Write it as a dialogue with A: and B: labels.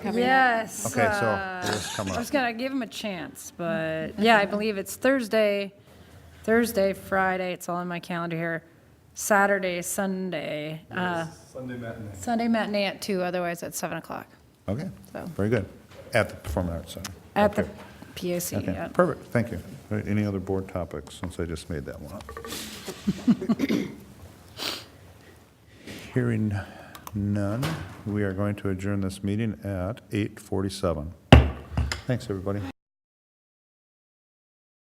A: coming up?
B: Yes.
C: Okay, so
B: uh,
C: it is coming
B: I
C: up.
B: was gonna give him a chance, but
A: Mm-hmm.
B: yeah, I believe it's Thursday, Thursday, Friday, it's all in my calendar here, Saturday, Sunday, uh,
D: Sunday matinee.
B: Sunday matinee at two, otherwise at seven o'clock
C: Okay,
B: So-
C: very good. At the Performing Arts Center.
B: at the
C: Okay.
B: POC,
C: Okay,
B: yeah.
C: perfect, thank you. All right, Any other board topics, since I just made that one up? Hearing none, we are going to adjourn this meeting at 8:47. Thanks, everybody.